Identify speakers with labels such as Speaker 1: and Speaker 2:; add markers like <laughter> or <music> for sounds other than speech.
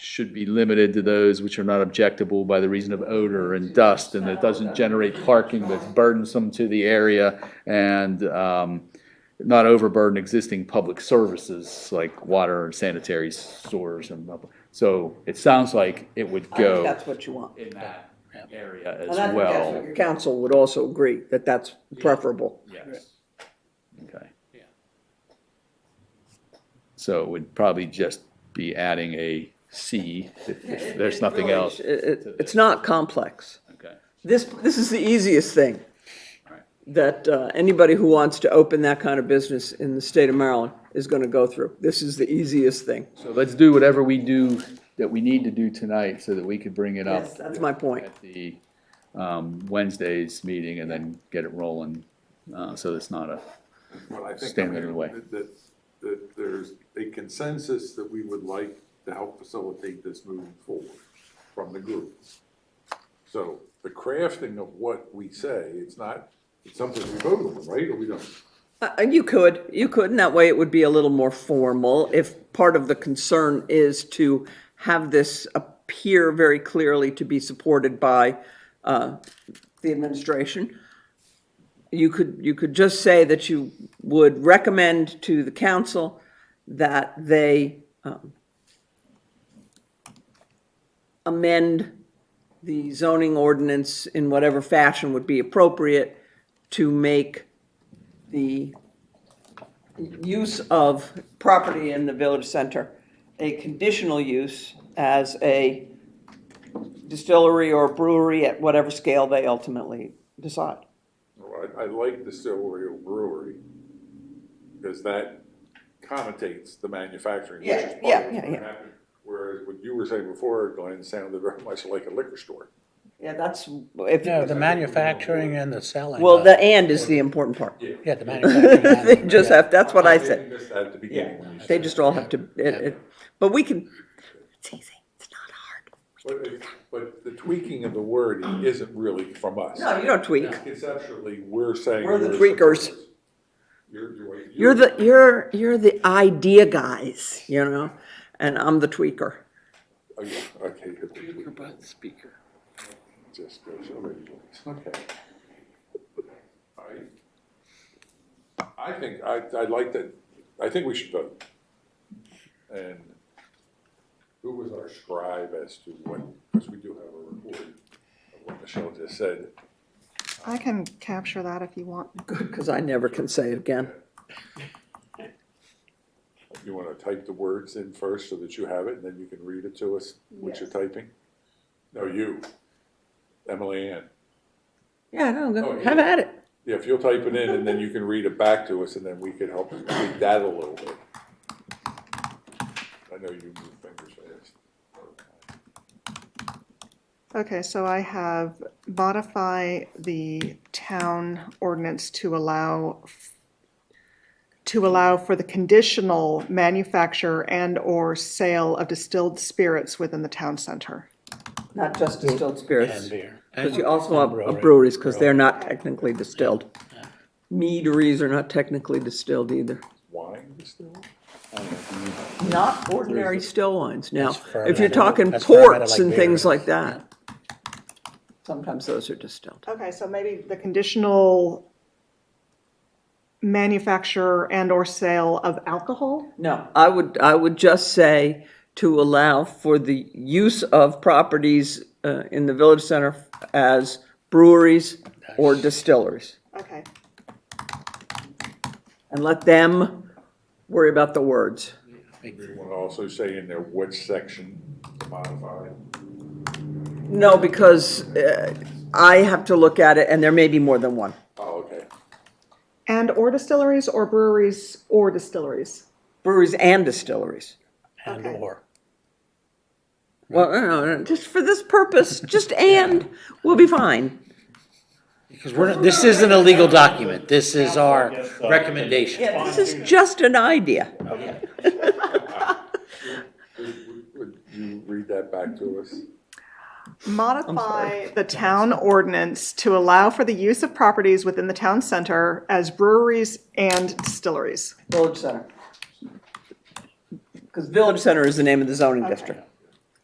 Speaker 1: should be limited to those which are not objectable by the reason of odor and dust, and that doesn't generate parking that's burdensome to the area, and, um, not overburden existing public services like water and sanitary stores and, blah, blah. so it sounds like it would
Speaker 2: I think
Speaker 1: go
Speaker 2: that's what you want.
Speaker 1: in that area as
Speaker 2: And I think that's what
Speaker 1: well,
Speaker 2: your council would also agree, that that's preferable.
Speaker 1: yes. Okay. So it would probably just be adding a C if- if
Speaker 2: <laughs>
Speaker 1: there's nothing else.
Speaker 2: It, it- it's not complex.
Speaker 1: Okay.
Speaker 2: This, this is the easiest thing
Speaker 1: Alright.
Speaker 2: that uh, anybody who wants to open that kind of business in the state of Maryland is going to go through. This is the easiest thing.
Speaker 1: So let's do whatever we do, that we need to do tonight so that we could bring it up
Speaker 2: Yes, that's my point.
Speaker 1: at the um, Wednesday's meeting and then get it rolling, uh, so it's not a,
Speaker 3: Well, I think, I
Speaker 1: Stand in the
Speaker 3: mean,
Speaker 1: way.
Speaker 3: that, that- that there's a consensus that we would like to help facilitate this moving forward from the group. So the crafting of what we say, it's not, it's something we vote on, right, or we don't?
Speaker 2: Uh, You could, you could, and that way it would be a little more formal if part of the concern is to have this appear very clearly to be supported by uh, the administration. You could, you could just say that you would recommend to the council that they um, amend the zoning ordinance in whatever fashion would be appropriate to make the use of property in the village center, a conditional use as a distillery or brewery at whatever scale they ultimately decide.
Speaker 3: Well, I, I like distillery or brewery, because that connotates the manufacturing, which is
Speaker 2: Yeah,
Speaker 3: part of
Speaker 2: yeah,
Speaker 3: what's
Speaker 2: yeah,
Speaker 3: gonna
Speaker 2: yeah.
Speaker 3: happen. Whereas what you were saying before, Glenn, sounded very much like a liquor store.
Speaker 2: Yeah, that's, if,
Speaker 4: No, the manufacturing and the selling.
Speaker 2: well,
Speaker 4: of-
Speaker 2: the and is the important part.
Speaker 4: Yeah, the manufacturing.
Speaker 2: <laughs>
Speaker 4: and-
Speaker 2: They just have, that's what I
Speaker 3: I
Speaker 2: said.
Speaker 3: missed that at the beginning when you said
Speaker 2: They just all have to, it, it, but we can,
Speaker 3: But, it- but the tweaking of the wording isn't really from us.
Speaker 2: no, you don't tweak.
Speaker 3: Conceptually, we're saying.
Speaker 2: We're the tweakers.
Speaker 3: supporters. You're, you're.
Speaker 2: You're the, you're, you're the idea guys, you know, and I'm the tweaker.
Speaker 3: Okay, okay, you're the tweaker. Just goes over the place. okay. I, I think, I, I'd like to, I think we should vote. And who was our scribe as to when, because we do have a report of what Michelle just said.
Speaker 5: I can capture that if you want.
Speaker 2: Good, because I never can say it again.
Speaker 3: You want to type the words in first so that you have it, and then you can read it to us, what you're typing? No, you, Emily Ann.
Speaker 2: Yeah, no,
Speaker 3: Oh,
Speaker 2: go,
Speaker 3: yeah.
Speaker 2: have at it.
Speaker 3: Yeah, if you'll type it in, and then you can read it back to us, and then we could help tweak that a little bit. I know you move fingers fast.
Speaker 5: Okay, so I have modify the town ordinance to allow, f- to allow for the conditional manufacture and/or sale of distilled spirits within the town center.
Speaker 2: Not just distilled
Speaker 4: And
Speaker 2: spirits,
Speaker 4: beer.
Speaker 2: because you also have
Speaker 4: brewery.
Speaker 2: breweries, because they're not technically distilled. Meaderies are not technically distilled either.
Speaker 3: Wine distilled?
Speaker 2: Not ordinary still wines, now, if you're
Speaker 4: fermented.
Speaker 2: talking
Speaker 4: That's fermented
Speaker 2: ports
Speaker 4: like
Speaker 2: and
Speaker 4: beer.
Speaker 2: things like that. Sometimes those are distilled.
Speaker 5: Okay, so maybe the conditional manufacture and/or sale of alcohol?
Speaker 2: No, I would, I would just say to allow for the use of properties uh, in the village center as breweries or distilleries.
Speaker 5: Okay,
Speaker 2: And let them worry about the words.
Speaker 3: You want to also say in there which section to modify?
Speaker 2: No, because uh, I have to look at it, and there may be more than one.
Speaker 3: Oh, okay.
Speaker 5: and/or distilleries or breweries or distilleries?
Speaker 2: Breweries and distilleries.
Speaker 4: And
Speaker 5: Okay.
Speaker 4: or.
Speaker 2: Well, no, no, no, just for this purpose, just and, we'll be fine.
Speaker 4: Because we're, not- this isn't a legal document. This is our recommendation.
Speaker 2: This is just an idea.
Speaker 3: Would- would- Would you read that back to us?
Speaker 5: Modify the town ordinance to allow for the use of properties within the town center as breweries and distilleries.
Speaker 2: Village Center. Because Village Center is the name of the zoning district.